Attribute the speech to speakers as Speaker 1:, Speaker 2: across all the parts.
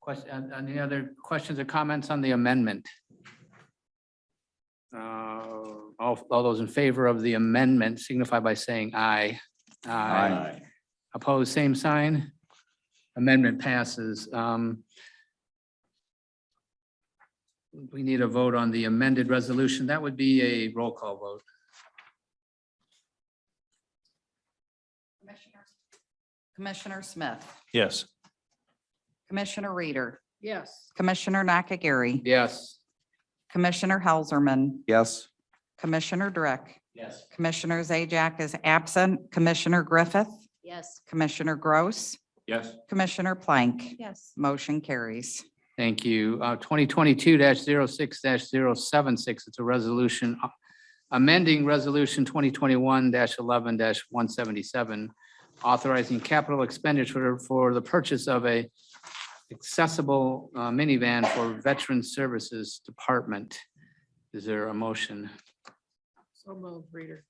Speaker 1: Question, uh, any other questions or comments on the amendment? Uh, All, all those in favor of the amendment signify by saying aye. Opposed, same sign. Amendment passes. Um, We need a vote on the amended resolution. That would be a roll call vote.
Speaker 2: Commissioner- Commissioner Smith,
Speaker 3: Yes.
Speaker 2: Commissioner Reader,
Speaker 1: Yes.
Speaker 2: Commissioner Nakagiri,
Speaker 1: Yes.
Speaker 2: Commissioner Helserman,
Speaker 3: Yes.
Speaker 2: Commissioner Drick,
Speaker 1: Yes.
Speaker 2: Commissioner Zajac is absent, Commissioner Griffith,
Speaker 4: Yes.
Speaker 2: Commissioner Gross,
Speaker 3: Yes.
Speaker 2: Commissioner Plank.
Speaker 4: Yes.
Speaker 2: Motion carries.
Speaker 1: Thank you. Uh, Twenty twenty-two 6 76 It's a resolution uh, amending resolution twenty twenty-one eleven one seventy-seven, authorizing capital expenditure for the purchase of a accessible uh, minivan for Veteran Services Department. Is there a motion?
Speaker 4: So moved, Reader.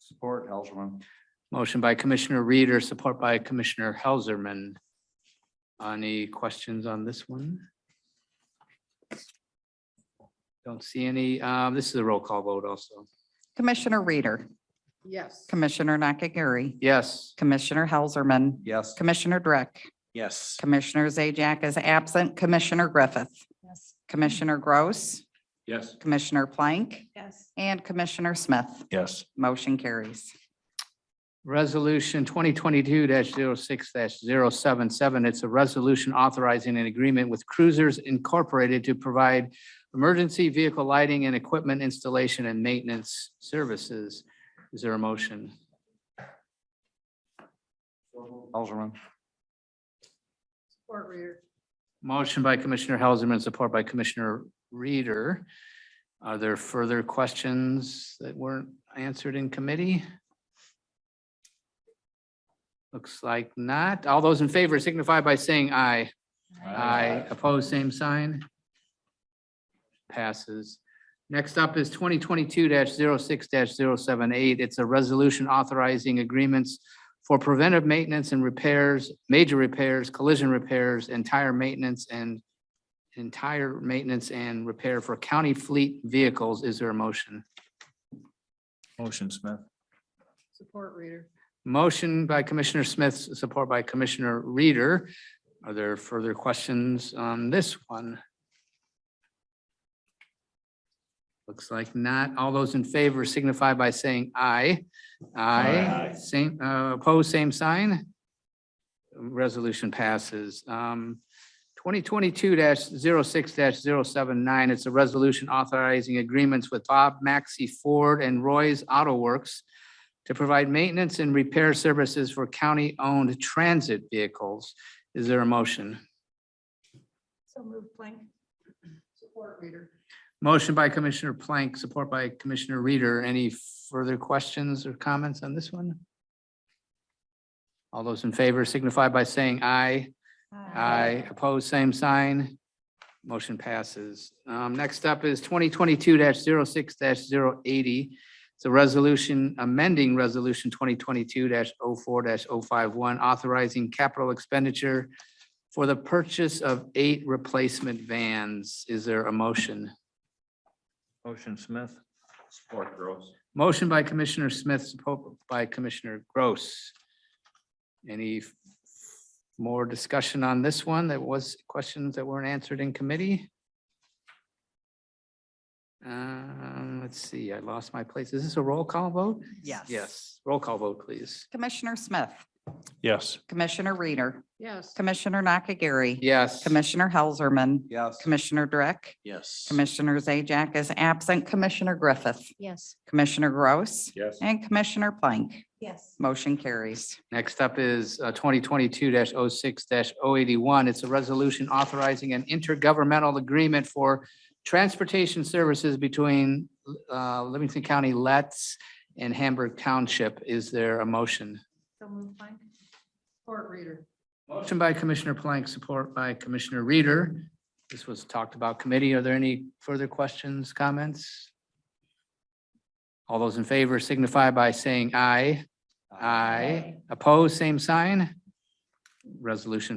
Speaker 3: Support, Helserman.
Speaker 1: Motion by Commissioner Reader, support by Commissioner Helserman. Any questions on this one? Don't see any. Uh, This is a roll call vote also.
Speaker 2: Commissioner Reader,
Speaker 4: Yes.
Speaker 2: Commissioner Nakagiri,
Speaker 1: Yes.
Speaker 2: Commissioner Helserman,
Speaker 3: Yes.
Speaker 2: Commissioner Drick,
Speaker 3: Yes.
Speaker 2: Commissioner Zajac is absent, Commissioner Griffith,
Speaker 4: Yes.
Speaker 2: Commissioner Gross,
Speaker 3: Yes.
Speaker 2: Commissioner Plank,
Speaker 4: Yes.
Speaker 2: and Commissioner Smith.
Speaker 3: Yes.
Speaker 2: Motion carries.
Speaker 1: Resolution twenty twenty-two 6 77 It's a resolution authorizing an agreement with Cruisers Incorporated to provide emergency vehicle lighting and equipment installation and maintenance services. Is there a motion?
Speaker 3: Helserman.
Speaker 4: Support Reader.
Speaker 1: Motion by Commissioner Helserman, support by Commissioner Reader. Are there further questions that weren't answered in committee? Looks like not. All those in favor signify by saying aye. Aye. Opposed, same sign. Passes. Next up is twenty twenty-two 6 78 It's a resolution authorizing agreements for preventive maintenance and repairs, major repairs, collision repairs, and tire maintenance and entire maintenance and repair for county fleet vehicles. Is there a motion?
Speaker 3: Motion, Smith.
Speaker 4: Support Reader.
Speaker 1: Motion by Commissioner Smith, support by Commissioner Reader. Are there further questions on this one? Looks like not. All those in favor signify by saying aye. Aye.
Speaker 3: Aye.
Speaker 1: Same, uh, opposed, same sign. Resolution passes. Um, 2022-06-079, it's a resolution authorizing agreements with Bob Maxey Ford and Roy's Auto Works to provide maintenance and repair services for county-owned transit vehicles. Is there a motion?
Speaker 4: So moved, Plank. Support Reader.
Speaker 1: Motion by Commissioner Plank, support by Commissioner Reader. Any further questions or comments on this one? All those in favor signify by saying aye. Aye. Opposed, same sign. Motion passes. Um, Next up is twenty twenty-two 6 80 It's a resolution amending resolution twenty twenty-two oh 4 51 authorizing capital expenditure for the purchase of eight replacement vans. Is there a motion?
Speaker 3: Motion, Smith. Support, Gross.
Speaker 1: Motion by Commissioner Smith, support by Commissioner Gross. Any f- more discussion on this one? That was questions that weren't answered in committee? Um, let's see, I lost my place. Is this a roll call vote?
Speaker 2: Yes.
Speaker 1: Yes, roll call vote, please.
Speaker 2: Commissioner Smith,
Speaker 3: Yes.
Speaker 2: Commissioner Reader,
Speaker 4: Yes.
Speaker 2: Commissioner Nakagiri,
Speaker 1: Yes.
Speaker 2: Commissioner Helserman,
Speaker 3: Yes.
Speaker 2: Commissioner Drick,
Speaker 3: Yes.
Speaker 2: Commissioner Zajac is absent, Commissioner Griffith,
Speaker 4: Yes.
Speaker 2: Commissioner Gross,
Speaker 3: Yes.
Speaker 2: and Commissioner Plank.
Speaker 4: Yes.
Speaker 2: Motion carries.
Speaker 1: Next up is uh, twenty twenty-two oh 6 81 It's a resolution authorizing an intergovernmental agreement for transportation services between uh, Livingston County Letts and Hamburg Township. Is there a motion?
Speaker 4: So moved, Plank. Support Reader.
Speaker 1: Motion by Commissioner Plank, support by Commissioner Reader. This was talked about committee. Are there any further questions, comments? All those in favor signify by saying aye. Aye. Opposed, same sign. Resolution